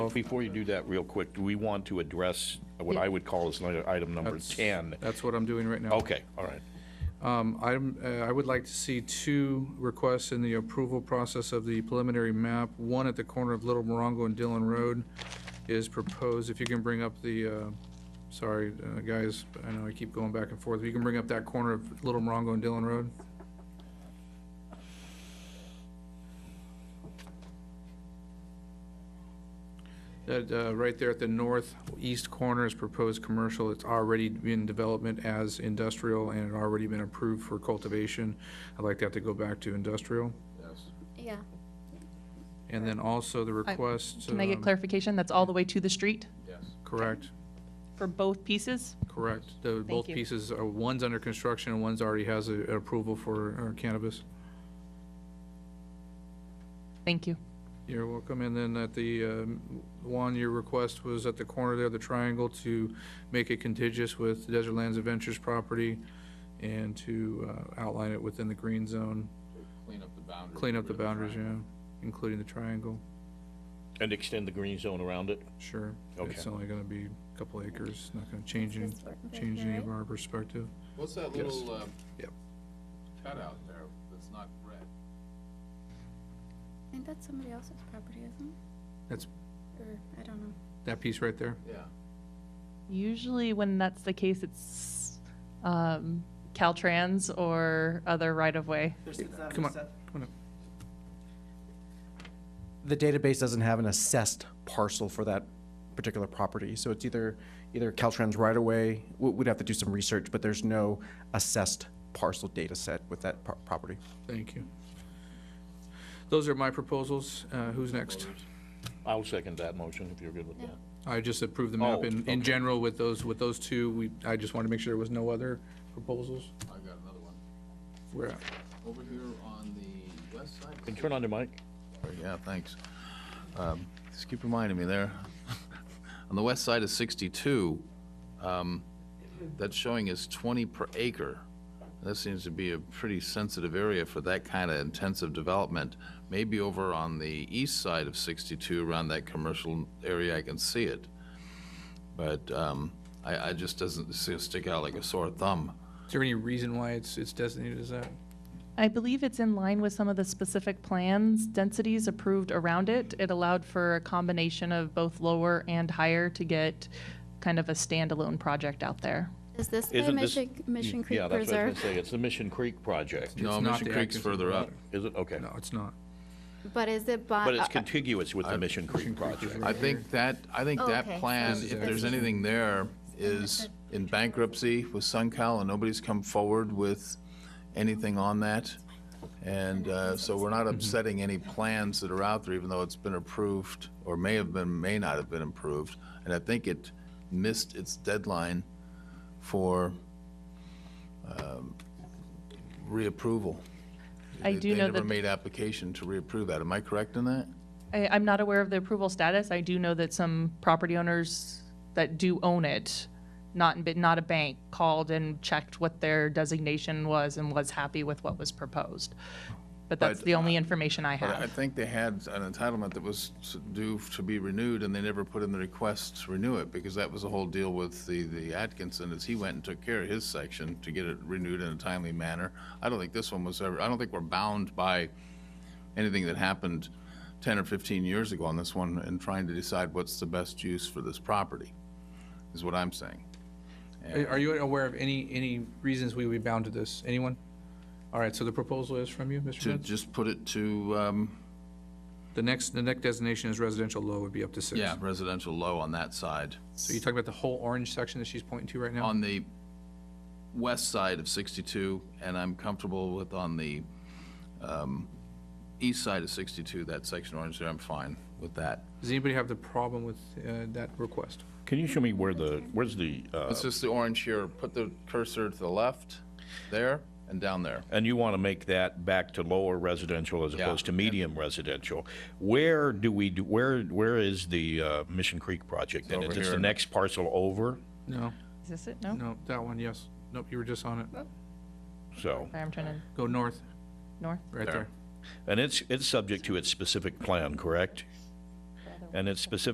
before you do that, real quick, do we want to address what I would call as item number 10? That's what I'm doing right now. Okay, all right. Um, I'm, uh, I would like to see two requests in the approval process of the preliminary map. One at the corner of Little Morongo and Dillon Road is proposed, if you can bring up the, uh, sorry, uh, guys, I know I keep going back and forth. If you can bring up that corner of Little Morongo and Dillon Road? That, uh, right there at the northeast corner is proposed commercial. It's already in development as industrial and it already been approved for cultivation. I'd like that to go back to industrial. Yeah, And then also the request. Can I get um, clarification? That's all the way to the street Correct, for both pieces? correct. The, both you. pieces, are- one's under construction and one's already has a- approval for uh, cannabis. Thank you. You're welcome. And then at the, um, Juan, your request was at the corner there, the triangle, to make it contiguous with Desert Lands Adventures property and to uh, outline it within the green zone. Clean up the boundaries. Clean up the boundaries, yeah, including the triangle, And extend the green zone around it? sure. Okay. It's only gonna be a couple acres, not gonna change any, This working change here, any of right? our perspective. What's that Yes. little um, Yep. cutout there that's not red? I think that's somebody else's property, isn't That's, it? Or, I don't know. that piece right there? Yeah. Usually when that's the case, it's um, Caltrans or other right-of-way. Come on, come on up. the database doesn't have an assessed parcel for that particular property. So it's either, either Caltrans right away, we- we'd have to do some research, but there's no assessed parcel data set with that pro- property. Thank you. Those are my proposals. Uh, Who's next? I'll second that motion if you're good with that. I just approved the map Oh, in, okay. in general with those, with those two. We, I just wanted to make sure there was no other proposals. I got another one. We're at. Over here on the west side? Can you turn on your mic? Yeah, thanks. Um, Just keep reminding me there. On the west side of 62, um, that's showing as 20 per acre. That seems to be a pretty sensitive area for that kind of intensive development. Maybe over on the east side of 62, around that commercial area, I can see it. But um, I, I just doesn't see it stick out like a sore thumb. Is there any reason why it's, it's designated as that? I believe it's in line with some of the specific plans, densities approved around it. It allowed for a combination of both lower and higher to get kind of a standalone project out there. Is this by Isn't this- Mm, Mission, Mission Yeah, that's Creek what I was Preserve? gonna say, it's the Mission Creek project. No, not Mission the Creek's Atkinson further up. Water. Is it? Okay. No, it's not. But is it by? But it's uh, uh, contiguous with the Mission Creek project. I think that, I think Oh, that okay. plan, This if there's anything there, is in bankruptcy with SunCal, and nobody's come forward with anything on that. And uh, so we're Mm-hmm. not upsetting any plans that are out there, even though it's been approved, or may have been, may not have been approved. And I think it missed its deadline for um, reapproval. I They- do know They never that, made application to reapprove that. Am I correct in that? I, I'm not aware of the approval status. I do know that some property owners that do own it, not, but not a bank, called and checked what their designation was and was happy with what was proposed. But that's But, the only information I But I have. think they had an entitlement that was s- due to be renewed, and they never put in the request to renew it, because that was the whole deal with the, the Atkinson, is he went and took care of his section to get it renewed in a timely manner. I don't think this one was ever, I don't think we're bound by anything that happened ten or fifteen years ago on this one, and trying to decide what's the best use for this property, is what I'm saying. Are are you aware of any, any reasons we would be bound to this? Anyone? All right, so the proposal is from you, Mr. To Benz? just put it to, um, The next, the next designation is residential low would be up to six. yeah, residential low on that side. So you're talking about the whole orange section that she's pointing to right now? on the west side of 62, and I'm comfortable with on the um, east side of 62, that section orange there, I'm fine with that. Does anybody have the problem with uh, that request? Can you show me where the, where's the, uh, It's just the orange here, put the cursor to the left, there, and down there. and you want to make that back to lower residential as opposed to medium residential. Where do we, do? where, where is the uh, Mission Creek project? then? over Is it the here. next parcel over? No, Is this it? No? no, that one, yes. Nope, you were just on it. So, Sorry, I'm trying to, Go north, north? right there. and it's, it's subject to its specific plan, correct? And it's specific